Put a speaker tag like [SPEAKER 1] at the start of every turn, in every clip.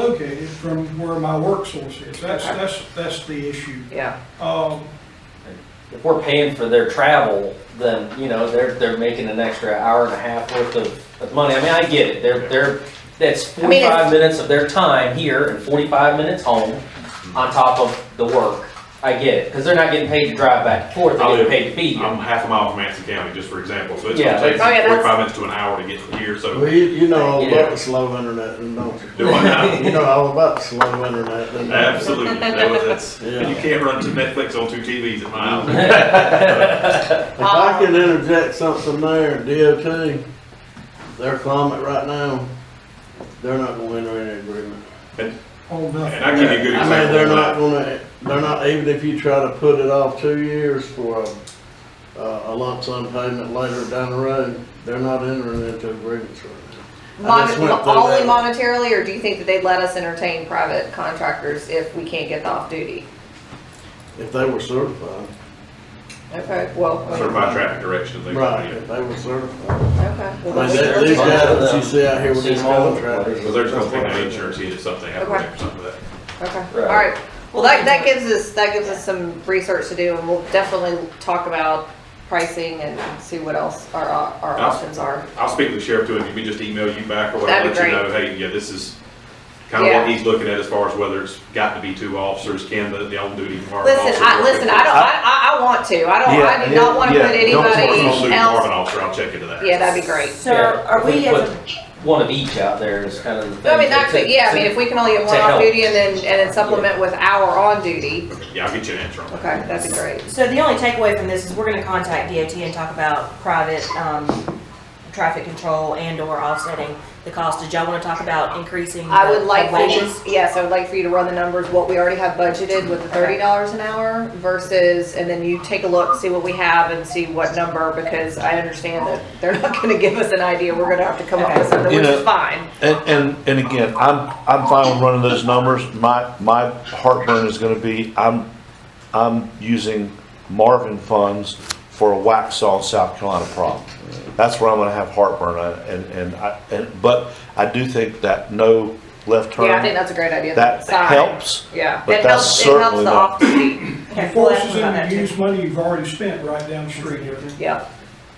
[SPEAKER 1] located from where my work source is. That's, that's, that's the issue.
[SPEAKER 2] Yeah,
[SPEAKER 1] Um,
[SPEAKER 3] If we're paying for their travel, then, you know, they're, they're making an extra hour and a half worth of, of money. I mean, I get it. They're, they're, that's
[SPEAKER 2] I mean, it's-
[SPEAKER 3] forty-five minutes of their time here and forty-five minutes home on top of the work. I get it, because they're not getting paid to drive back and forth,
[SPEAKER 4] I
[SPEAKER 3] they're
[SPEAKER 4] live-
[SPEAKER 3] getting paid to be here.
[SPEAKER 4] I'm half a mile from Anson County, just for example, so it's
[SPEAKER 3] Yeah.
[SPEAKER 4] gonna take
[SPEAKER 2] Oh, yeah, that's-
[SPEAKER 4] forty-five minutes to an hour to get from here,
[SPEAKER 5] Well,
[SPEAKER 4] so
[SPEAKER 5] you, you know all
[SPEAKER 3] Yeah.
[SPEAKER 5] about the slow internet, and don't you?
[SPEAKER 4] do I now.
[SPEAKER 5] You know all about the slow internet, and
[SPEAKER 4] Absolutely, that was, that's,
[SPEAKER 5] Yeah.
[SPEAKER 4] you can't run to Netflix on two TVs at my house.
[SPEAKER 5] If I can interject something there, DOT, their climate right now, they're not gonna enter any agreement.
[SPEAKER 1] oh,
[SPEAKER 4] And
[SPEAKER 1] nothing.
[SPEAKER 4] I give you a good
[SPEAKER 5] I mean, they're
[SPEAKER 4] example
[SPEAKER 5] not
[SPEAKER 4] of that.
[SPEAKER 5] gonna, they're not, even if you try to put it off two years for a, a lump sum payment later down the road, they're not entering into agreements right now. I just
[SPEAKER 2] Mon-
[SPEAKER 5] went through
[SPEAKER 2] only
[SPEAKER 5] that.
[SPEAKER 2] monetarily, or do you think that they'd let us entertain private contractors if we can't get the off-duty?
[SPEAKER 5] If they were certified,
[SPEAKER 2] Okay, well, okay,
[SPEAKER 4] Certified traffic direction, they,
[SPEAKER 5] right,
[SPEAKER 4] yeah.
[SPEAKER 5] if they were certified.
[SPEAKER 2] well,
[SPEAKER 5] I
[SPEAKER 2] let's-
[SPEAKER 5] mean, that-
[SPEAKER 2] let's-
[SPEAKER 5] these guys that you see out here with these contractors.
[SPEAKER 4] Well, they're just gonna take an insurance hit if something happens or something like that.
[SPEAKER 2] Okay, all
[SPEAKER 3] Right.
[SPEAKER 2] right. Well, that, that gives us, that gives us some research to do, and we'll definitely talk about pricing and see what else our, op- our
[SPEAKER 4] Awesome.
[SPEAKER 2] options are.
[SPEAKER 4] I'll speak to the sheriff too, and we just email you back or whatever,
[SPEAKER 2] That'd
[SPEAKER 4] let
[SPEAKER 2] be
[SPEAKER 4] you know, hey, yeah, this is kind of
[SPEAKER 2] Yeah.
[SPEAKER 4] what he's looking at as far as whether it's got to be two officers, can the, the on-duty department officer.
[SPEAKER 2] Listen, I, listen, I don't, I, I, I want to, I don't, I do not wanna put
[SPEAKER 4] Yeah, yeah, don't force an
[SPEAKER 2] anybody
[SPEAKER 4] on-duty
[SPEAKER 2] else,
[SPEAKER 4] department officer, I'll check into that.
[SPEAKER 2] yeah, that'd be great.
[SPEAKER 6] So are we,
[SPEAKER 3] Yeah,
[SPEAKER 6] as
[SPEAKER 3] put One of each out there is kind of the thing.
[SPEAKER 2] I mean,
[SPEAKER 3] that
[SPEAKER 2] that could,
[SPEAKER 3] to-
[SPEAKER 2] yeah, I
[SPEAKER 3] to-
[SPEAKER 2] mean, if we can only have one
[SPEAKER 3] to
[SPEAKER 2] off
[SPEAKER 3] help.
[SPEAKER 2] duty and then, and then supplement with our on duty,
[SPEAKER 4] Yeah, I'll get you an answer on that.
[SPEAKER 2] okay, that'd be great.
[SPEAKER 6] a- so the only takeaway from this is we're gonna contact DOT and talk about private, um, traffic control and or offsetting the cost. Did y'all wanna talk about increasing
[SPEAKER 2] I
[SPEAKER 6] the-
[SPEAKER 2] would
[SPEAKER 6] the
[SPEAKER 2] like for you,
[SPEAKER 6] wages?
[SPEAKER 2] yes, I would like for you to run the numbers, what we already have budgeted with the thirty dollars an hour versus, and then you take a look, see what we have and see what number, because I understand that they're not gonna give us an idea, we're gonna have to come up with something,
[SPEAKER 7] You
[SPEAKER 2] which
[SPEAKER 7] know-
[SPEAKER 2] is fine.
[SPEAKER 7] And, and, and again, I'm, I'm fine with running those numbers. My, my heartburn is gonna be, I'm, I'm using Marvin funds for a wax on South Carolina problem. That's where I'm gonna have heartburn, uh, and, and I, and, but I do think that no left turn,
[SPEAKER 2] Yeah, I think that's a great idea.
[SPEAKER 7] that
[SPEAKER 2] Sign.
[SPEAKER 7] helps.
[SPEAKER 2] Yeah,
[SPEAKER 7] but
[SPEAKER 2] it helps,
[SPEAKER 7] that's
[SPEAKER 2] it helps
[SPEAKER 7] certainly
[SPEAKER 2] the
[SPEAKER 7] not-
[SPEAKER 2] off duty,
[SPEAKER 6] Okay,
[SPEAKER 1] It
[SPEAKER 6] we'll ask
[SPEAKER 1] forces
[SPEAKER 6] them about
[SPEAKER 1] them
[SPEAKER 6] that
[SPEAKER 1] to
[SPEAKER 6] too.
[SPEAKER 1] use money you've already spent right down the street.
[SPEAKER 2] yeah.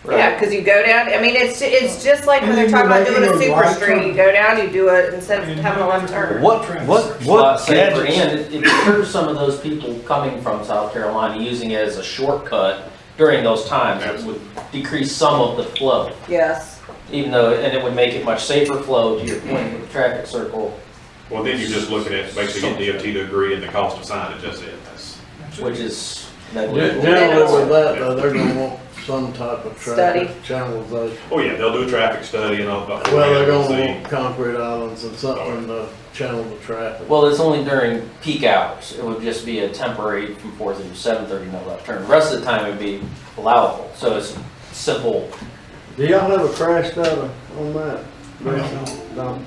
[SPEAKER 3] Right.
[SPEAKER 2] Yeah, cause you go down, I mean, it's, it's just like when
[SPEAKER 1] And
[SPEAKER 2] they're
[SPEAKER 1] then
[SPEAKER 2] talking
[SPEAKER 1] you
[SPEAKER 2] about
[SPEAKER 1] make
[SPEAKER 2] doing a
[SPEAKER 1] it a
[SPEAKER 2] super
[SPEAKER 1] right
[SPEAKER 2] street, you
[SPEAKER 1] turn.
[SPEAKER 2] go down, you do it instead of having a left turn.
[SPEAKER 7] What, what, what
[SPEAKER 3] Lot safer,
[SPEAKER 7] gadgets?
[SPEAKER 3] And it it deters some of those people coming from South Carolina using it as a shortcut during those times. It would decrease some of the flow,
[SPEAKER 2] Yes,
[SPEAKER 3] even though, and it would make it much safer flow to your point with the traffic circle,
[SPEAKER 4] Well, then you're just looking at basically getting DOT to agree and the cost of signage, that's it. That's-
[SPEAKER 3] which is.
[SPEAKER 5] Gen-
[SPEAKER 3] negligible.
[SPEAKER 5] Generally with that, though, they're gonna want some type of traffic channelization.
[SPEAKER 4] Oh, yeah, they'll do a traffic study and all that.
[SPEAKER 5] Well, they're gonna want concrete islands and something to channel the traffic.
[SPEAKER 3] Well, it's only during peak hours. It would just be a temporary from four through seven thirty, no left turn. The Rest of the time it'd be allowable, so it's simple.
[SPEAKER 5] Do y'all have a crash data on that?
[SPEAKER 1] No.
[SPEAKER 5] No.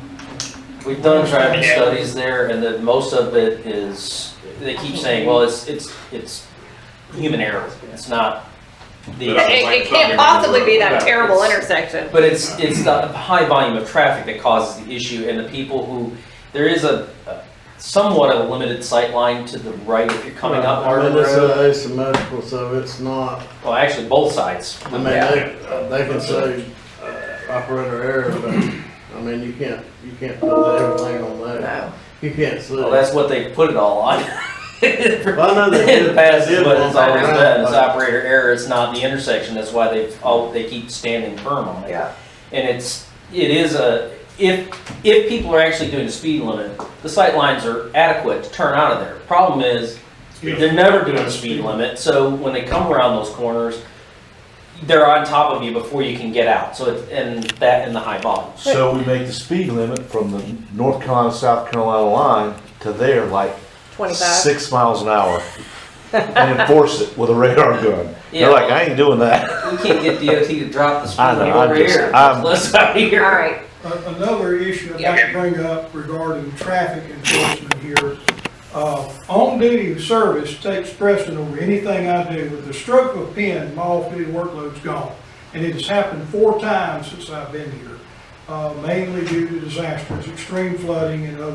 [SPEAKER 3] We've done traffic studies there and then most of it is, they keep saying, well, it's, it's, it's human error. It's not
[SPEAKER 2] it,
[SPEAKER 3] the,
[SPEAKER 4] But-
[SPEAKER 2] it- it can't possibly be that
[SPEAKER 3] Yeah.
[SPEAKER 2] terrible intersection.
[SPEAKER 3] but it's, it's the high volume of traffic that causes the issue and the people who, there is a a somewhat of a limited sight line to the right if you're coming up
[SPEAKER 5] I
[SPEAKER 3] Marvin
[SPEAKER 5] mean, it's
[SPEAKER 3] Road.
[SPEAKER 5] uh, asymmetrical, so it's not,
[SPEAKER 3] Well, actually, both sides.
[SPEAKER 5] I mean, they, they can say uh, operator error, but, I mean, you can't, you can't put everything on that.
[SPEAKER 2] No.
[SPEAKER 5] You can't see.
[SPEAKER 3] Well, that's what they put it all on. In
[SPEAKER 5] Well, I know they
[SPEAKER 3] the
[SPEAKER 5] did-
[SPEAKER 3] past,
[SPEAKER 5] they did
[SPEAKER 3] but
[SPEAKER 5] one
[SPEAKER 3] it's always
[SPEAKER 5] around,
[SPEAKER 3] been, it's
[SPEAKER 5] but-
[SPEAKER 3] operator error, it's not the intersection, that's why they've, oh, they keep standing firm on it.
[SPEAKER 2] Yeah.
[SPEAKER 3] And it's, it is a, if, if people are actually doing the speed limit, the sight lines are adequate to turn out of there. Problem is, they're never doing the speed limit, so when they come around those corners, they're on top of you before you can get out, so it's, and that and the high volumes.
[SPEAKER 7] So we make the speed limit from the North Carolina, South Carolina line to there like
[SPEAKER 2] Twenty-five.
[SPEAKER 7] six miles an hour and enforce it with a radar gun.
[SPEAKER 3] Yeah.
[SPEAKER 7] They're like, I ain't doing that.
[SPEAKER 3] We can't get DOT to drop the speed
[SPEAKER 7] I know,
[SPEAKER 3] limit
[SPEAKER 7] I'm
[SPEAKER 3] over
[SPEAKER 7] just-
[SPEAKER 3] here,
[SPEAKER 7] I'm-
[SPEAKER 3] let's out of
[SPEAKER 2] All
[SPEAKER 3] here.
[SPEAKER 2] right.
[SPEAKER 1] A- Uh, Another issue I'd like to bring up regarding traffic enforcement here. Uh, on-duty service takes precedent over anything I do. With the stroke of a pen, my off-duty workload's gone. And it has happened four times since I've been here, uh, mainly due to disasters, extreme flooding and other